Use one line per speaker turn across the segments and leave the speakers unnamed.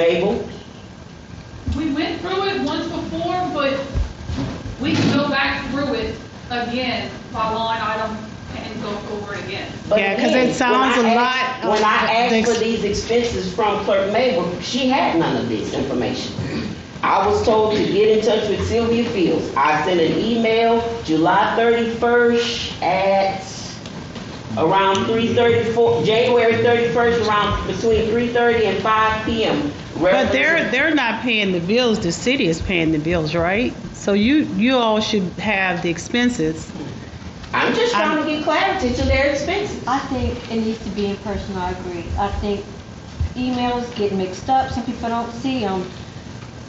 Mabel?
We went through it once before, but we can go back through it again by line item and go over it again.
But
Yeah, 'cause it
again, when
sounds
I
a
asked- When
lot
I
of the
asked
ex-
for these expenses from Clerk Mabel, she had none of this information. I was told to get in touch with Sylvia Fields. I sent an email July thirty-first at around three thirty-four, January thirty-first, around between three thirty and five PM.
But they're, they're not paying the bills, the city is paying the bills, right? So you, you all should have the expenses.
I'm just trying to get clarity to their expenses.
I think it needs to be in person, I agree. I think emails get mixed up, some people don't see them.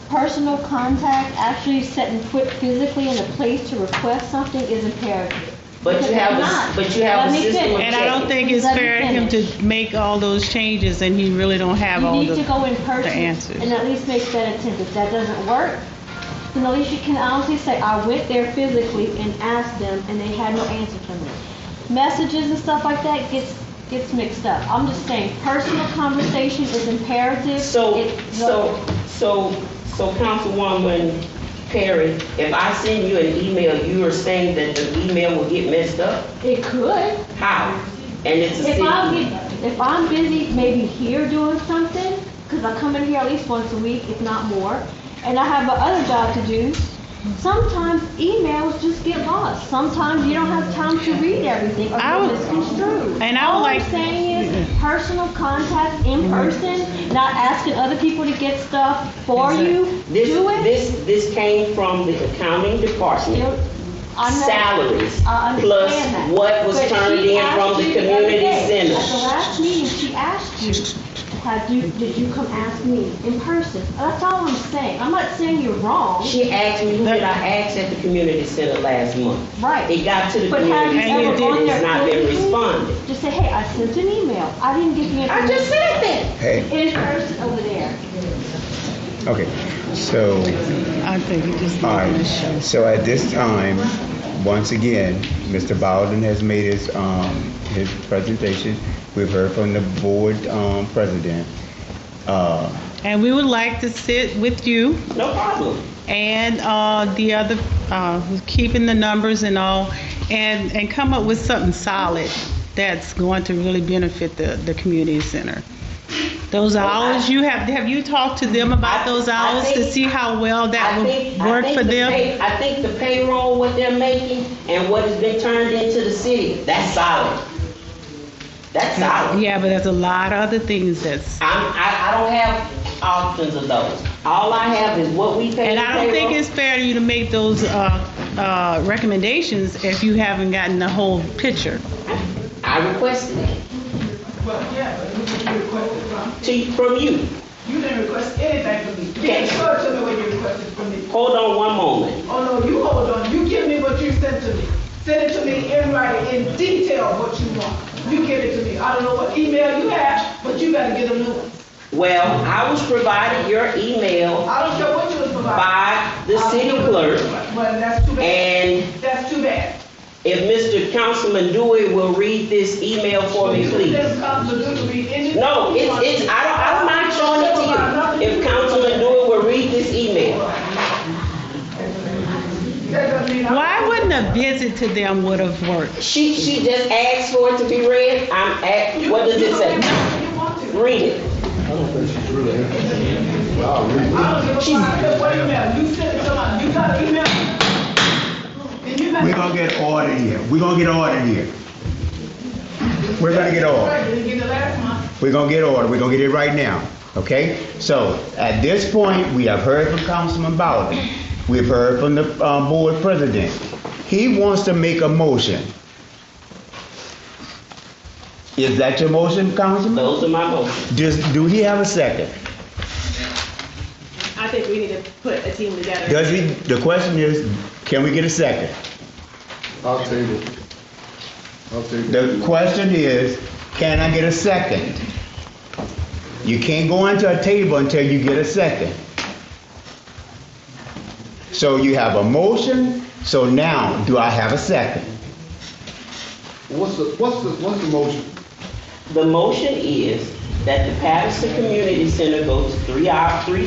Personal contact, actually setting foot physically in a place to request something is imperative.
But you have, a- but you have a
Let me
system of
finish.
And I don't think it's fair to him to make all those changes and he really don't have
You
all
need to
the.
go in
answers.
person and at least make that attempt. If that doesn't work, then at least you can honestly say, I went there physically and asked them and they had no answer for me. Messages and stuff like that gets, gets mixed up. I'm just saying, personal conversation is imperative.
So,
It-
so, so, so Councilwoman Perry, if I send you an email, you are saying that the email will get messed up?
It could.
How? And it's a
If I'm,
city.
get- if I'm busy, maybe here doing something, because I come in here at least once a week, if not more, and I have a other job to do, sometimes emails just get lost. Sometimes you don't have time to read everything or
I
you'll
would-
misconstrue.
and I would like-
All I'm saying is personal contact in person, not asking other people to get stuff for you.
This,
Do it.
this, this came from the accounting department.
I know-
Salaries,
I understand
plus
that.
what was
But
turned
she
in from
asked
the
you other
community
day,
center.
At the last meeting, she asked you, have you, did you come ask me in person? That's all I'm saying. I'm not saying you're wrong,
She asked me, who did I ask at the community center last month?
right?
It got to the
But have
community
you
center,
ever gone
and
there?
it's not been
physically?
responded.
Just say, hey, I sent an email. I didn't get the
I
information.
just said that.
In person over there.
Okay, so,
I think it just.
all right, so at this time, once again, Mr. Bowden has made his, um, his presentation. We've heard from the board, um, president. Uh,
And we would like to sit with you
No problem.
and uh, the other, uh, who's keeping the numbers and all, and, and come up with something solid that's going to really benefit the, the community center. Those hours, you have, have you talked to them about those
Oh, I- I
hours to
think-
see how well that
I
would
think- I
work
think
for
the
them?
pay- I think the payroll, what they're making, and what has been turned into the city, that's solid. That's solid.
Yeah, but there's a lot of other things that's,
I'm, I, I don't have options of those. All I have is what we pay
and
the
I don't think
payroll.
it's fair to you to make those uh, uh, recommendations if you haven't gotten the whole picture.
I requested it.
Well, yeah, but who did you request it from?
To, from you.
You didn't request anything from me.
Okay.
Be sure to know what you requested from me.
Hold on one moment.
Oh, no, you hold on, you give me what you sent to me. Send it to me in writing, in detail what you want. You give it to me. I don't know what email you have, but you better get a new one.
Well, I was provided your email
I don't care what you was providing.
by the city clerk,
Well, that's too bad.
and
That's too bad.
if Mr. Councilman Dewey will read this email for me, please.
This council do to read anything.
No,
you
it's,
want.
it's, I don't, I don't mind showing it to you. If Councilman Dewey will read this email.
That doesn't mean I-
Why wouldn't a visit to them would have worked?
She, she just asked for it to be read. I'm at, what does it say?
You want to.
Read it.
I don't give a fuck. Look, Wait a minute, you sent it to my, you got an email? Then you better-
we're gonna get ordered here, we're gonna get ordered here. We're gonna get ordered.
Right, you get it last month.
We're gonna get order, we're gonna get it right now, okay? So, at this point, we have heard from Councilman Bowden, we've heard from the, um, board president. He wants to make a motion. Is that your motion, Councilman?
Those are my motions.
Does, do he have a second?
I think we need to put a team together.
Does he, the question is, can we get a second?
I'll table. I'll table.
The question is, can I get a second? You can't go into a table until you get a second. So you have a motion, so now, do I have a second?
What's the, what's the, what's the motion?
The motion is that the Patterson Community Center go to three hour, three